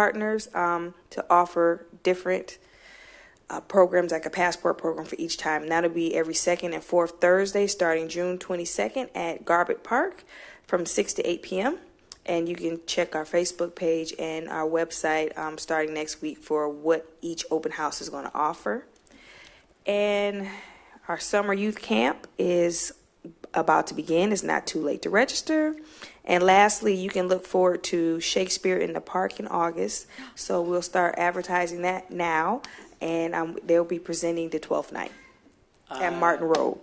partners um, to offer different uh, programs like a passport program for each time. And that'll be every second and fourth Thursday starting June 22nd at Garbutt Park from 6 to 8 p.m. And you can check our Facebook page and our website um, starting next week for what each open house is going to offer. And our summer youth camp is about to begin. It's not too late to register. And lastly, you can look forward to Shakespeare in the Park in August. So we'll start advertising that now. And um, they'll be presenting the 12th night Uh, at Martin Road.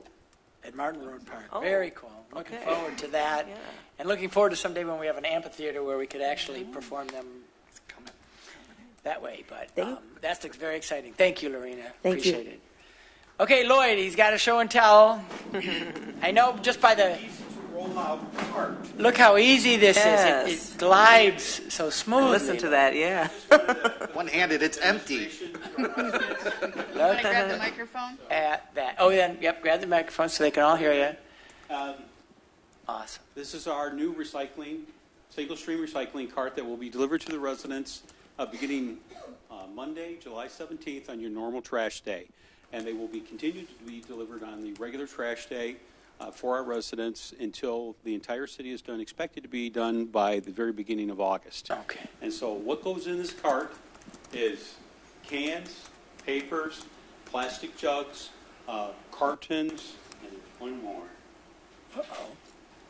at Martin Road Park. Very cool. Looking Oh, okay. forward to that. Yeah. And looking forward to someday when we have an amphitheater where we could actually Mm-hmm. perform them that way. But Thank- um, that's ex- very exciting. Thank you, Lorena. Thank you. Appreciate it. Okay, Lloyd, he's got a show and tell. I know just by the, look how easy this is. It- Yes. It glides so smoothly. Listen to that, yeah. One-handed, it's empty. Can I grab the microphone? At that. Oh, yeah. Yep. Grab the microphone so they can all hear you. Um, Awesome. This is our new recycling, single stream recycling cart that will be delivered to the residents uh, beginning uh, Monday, July 17th on your normal trash day. And they will be continued to be delivered on the regular trash day uh, for our residents until the entire city is done, expected to be done by the very beginning of August. Okay. And so what goes in this cart is cans, papers, plastic jugs, uh, cartons, and one more.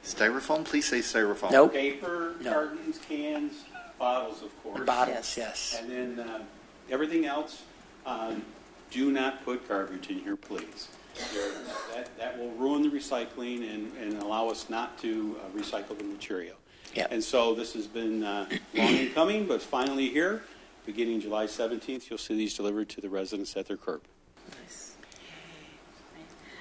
Styrofoam, please say styrofoam. Nope. Paper, No. cartons, cans, bottles, of course. Bottles, yes. And then uh, everything else, um, do not put garbage in here, please. There- That that will ruin the recycling and and allow us not to uh, recycle the material. Yep. And so this has been uh, long in coming, but finally here. Beginning July 17th, you'll see these delivered to the residents at their curb.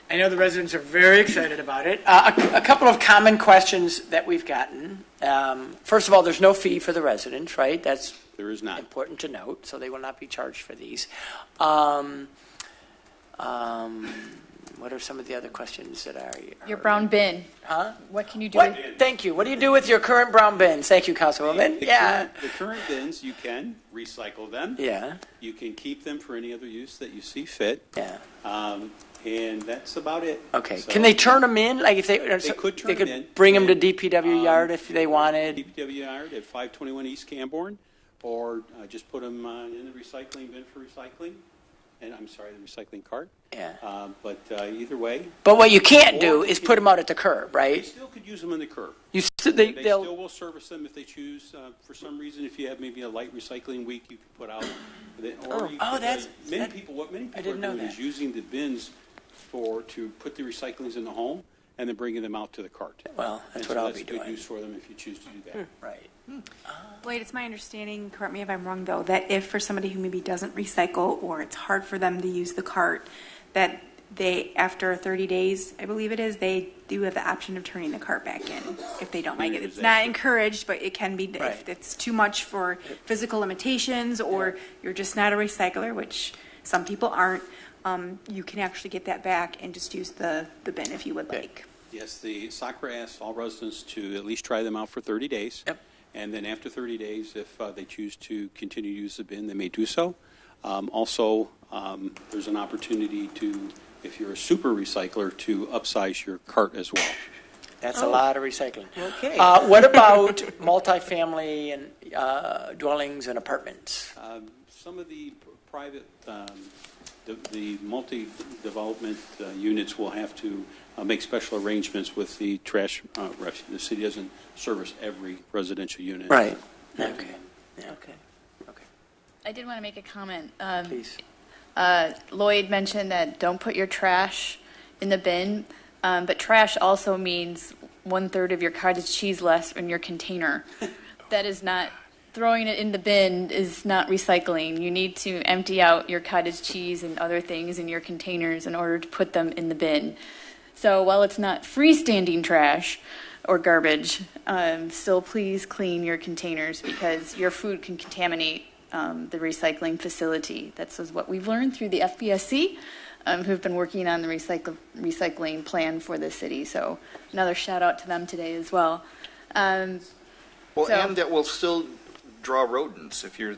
I know the residents are very excited about it. Uh, a, a couple of common questions that we've gotten. Um, first of all, there's no fee for the residents, right? That's There is not. important to note, so they will not be charged for these. Um, um, what are some of the other questions that are? Your brown bin. Huh? What can you do? What? with- Thank you. What do you do with your current brown bins? Thank you, Councilwoman. The Yeah. current- The current bins, you can recycle them. Yeah. You can keep them for any other use that you see fit. Yeah. Um, and that's about it. Okay. So, Can they turn them in? Like if they, They could turn they could them in. bring them to And, DPW um, yard if they wanted. DPW yard at 521 East Camborne, or uh, just put them uh, in the recycling bin for recycling. And I'm sorry, the recycling cart. Yeah. Um, but uh, either way, But what you can't do Or- is put them out at the curb, they right? still could use them on the curb. You s- they, They they'll still will service them if they choose. Uh, for some reason, if you have maybe a light recycling week, you could put out. Then, or Oh. you Oh, could, uh, that's- many that- people. What many people didn't are know doing is that. using the bins for to put the recyclings in the home and then bringing them out to the cart. Well, that's And what so I'll that's be good doing. Hmm. use for them if you choose to do that. right. Wait, it's my understanding, correct me if I'm wrong though, that if for somebody who maybe doesn't recycle or it's hard for them to use the cart, that they, after 30 days, I believe it is, they do have the option of turning the cart back in if they don't like it. It's not encouraged, but it can be, Right. if it's too much for physical limitations or you're just not a recycler, which some people aren't, um, you can actually get that back and just use the, the bin if you would like. Yes, the SACRA asks all residents to at least try them out for 30 days. Yep. And then after 30 days, if uh, they choose to continue to use the bin, they may do so. Um, Also, um, there's an opportunity to, if you're a super recycler, to upsize your cart as well. That's a lot of recycling. Okay. Uh, what about multifamily and uh, dwellings and apartments? Um, Some of the p- private, um, the- the multi-development uh, units will have to uh, make special arrangements with the trash, uh, ref- the city doesn't service every residential unit. Right. Okay. Yeah. Okay. I did want to make a comment. Um, Please. uh, Lloyd mentioned that don't put your trash in the bin, um, but trash also means one third of your cottage cheese less in your container. that is not throwing it in the bin is not recycling. You need to empty out your cottage cheese and other things in your containers in order to put them in the bin. So while it's not freestanding trash or garbage, um, still please clean your containers because your food can contaminate um, the recycling facility. That's is what we've learned through the FBSC, um, who've been working on the recycle, recycling plan for the city. So another shout out to them today as well. Um, Well, So- and that will still draw rodents if you're